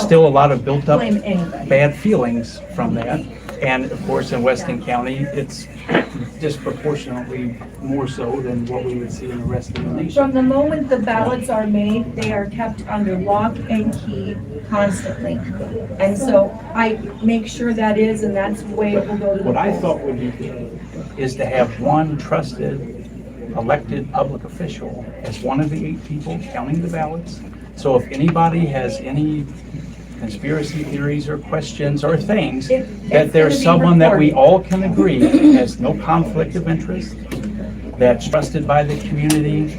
still a lot of built up Blame anybody. bad feelings from that. And of course, in Weston County, it's disproportionately more so than what we would see in the rest of the From nation. the moment the ballots are made, they are kept under lock and key constantly. And so I make sure that is, and that's the way it will go to the What I polls. thought would be good is to have one trusted elected public official as one of the eight people counting the ballots. So if anybody has any conspiracy theories or questions or things, that It- it's gonna there's be someone that we reported. all can agree has no conflict of interest, that's trusted by the community,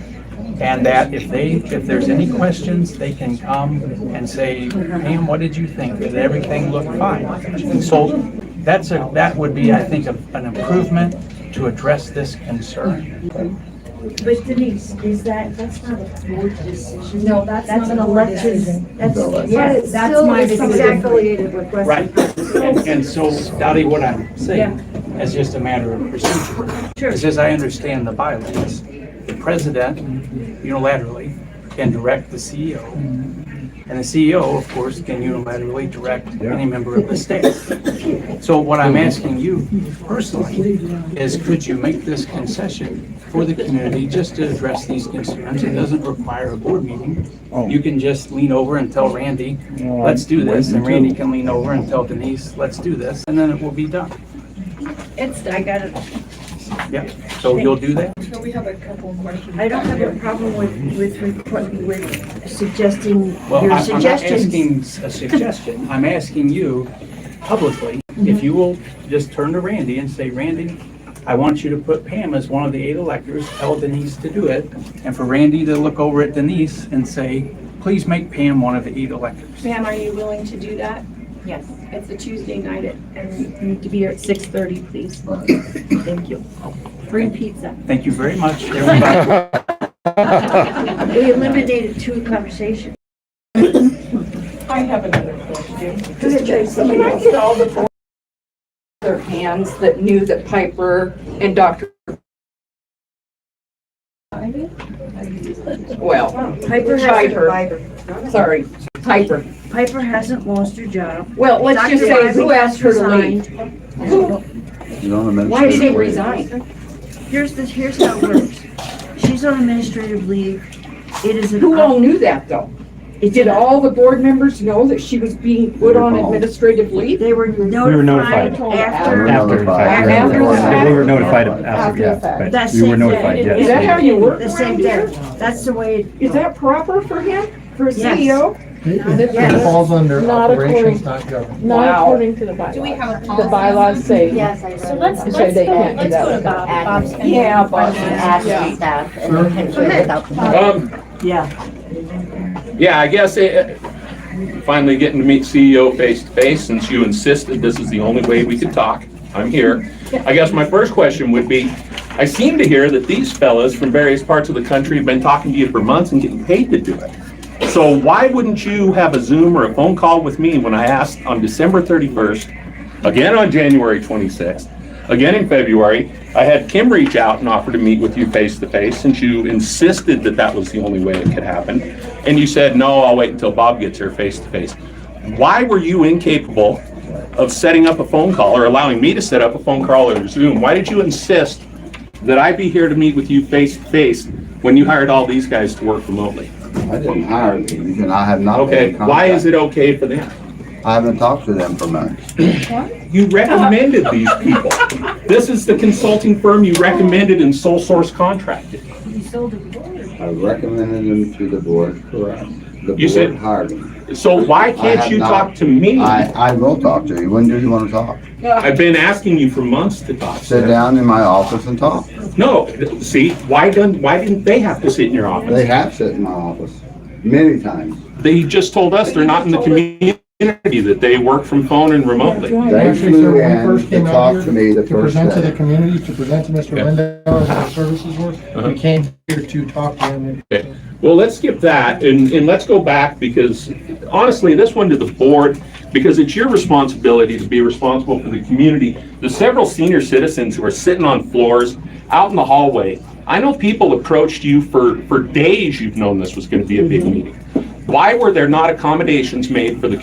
and that if they, if there's any questions, they can come and say, Pam, what did you think? Did everything look fine? So that's a, that would be, I think, a- an improvement to address this concern. But Denise, is that, that's not a board decision? No, that's not an a board elected- decision. That's, But yes, it's that's still my is decision. affiliated with Right, and and so, Dottie, what I'm saying is just a matter of procedure. Because as I understand the bylaws, the president unilaterally can direct the CEO. And the CEO, of course, can unilaterally direct any member of the staff. So what I'm asking you personally is could you make this concession for the community just to address these concerns? It doesn't require a board meeting. You can just lean over and tell Randy, let's do this, and Randy can lean over and tell Denise, let's do this, and then it will be done. It's, I got it. Yeah, so you'll do that? I don't have a problem with, with, requ- with suggesting Well, your I- I'm not suggestions. asking a suggestion, I'm asking you publicly, if you will just turn to Randy and say, Randy, I want you to put Pam as one of the eight electors, tell Denise to do it, and for Randy to look over at Denise and say, please make Pam one of the eight electors. Pam, are you willing to do that? Yes. It's a Tuesday night at- and you need to be here at six thirty, please. Thank you. Bring pizza. Thank you very much, everybody. We eliminated two conversations. I have another question. Go ahead, Tracy. Can I get all the board their hands that knew that Piper and Dr. Well, Piper hasn't, Piper, sorry, Piper. Piper hasn't lost her job. Well, let's just say, who asked her to leave? Resigned. Why did they resign? Here's the, here's how it works. She's on administrative leave. It is an. Who all knew that, though? It's Did an- all the board members know that she was being put on administrative leave? They were notified notified. after. We After the fact. After the fact. We were notified After after, the yeah. fact. right. That We were same notified, day. yes. Is that how you work The same around day. here? That's the way. it- Is that proper for him, for a E Yes. CEO? It falls under Not according- operations, not government. Wow. Not according to the bylaws. Do we have a policy? The bylaws say. Yes, I So read let's, it. let's they go, can't do let's that go to Bob. Bob's gonna- Yeah, but. Ask the staff and they can do it without complaint. Um, Yeah. yeah, I guess it, finally getting to meet CEO face to face, since you insisted this is the only way we could talk. I'm here. I guess my first question would be, I seem to hear that these fellas from various parts of the country have been talking to you for months and getting paid to do it. So why wouldn't you have a Zoom or a phone call with me when I asked on December 31st, again on January 26th, again in February? I had Kim reach out and offer to meet with you face to face since you insisted that that was the only way it could happen. And you said, no, I'll wait until Bob gets here face to face. Why were you incapable of setting up a phone call or allowing me to set up a phone call or Zoom? Why did you insist that I be here to meet with you face to face when you hired all these guys to work remotely? I didn't hire these, and I have not been Okay, in why is contact. it okay for them? I haven't talked to them for months. You recommended these people. This is the consulting firm you recommended and sole source contracted. I recommended them to the board, correct? The You said- board hired them. So why I can't have you not- talk to me? I, I will talk to you. When do you want to talk? I've been asking you for months to talk. Sit down in my office and talk. No, th- see, why didn't, why didn't they have to sit in your They office? have sat in my office many times. They just told us they're not in the community, that they work from phone and remotely. They Actually, flew sir, when in we first to came out talk here to me the first To present to day. the community, to present to Mr. Lindau and what the services were, we came here to talk to him. and- Okay, well, let's skip that and, and let's go back because honestly, this one to the board, because it's your responsibility to be responsible for the community. The several senior citizens who are sitting on floors, out in the hallway. I know people approached you for, for days you've known this was gonna be a big meeting. Why were there not accommodations made for the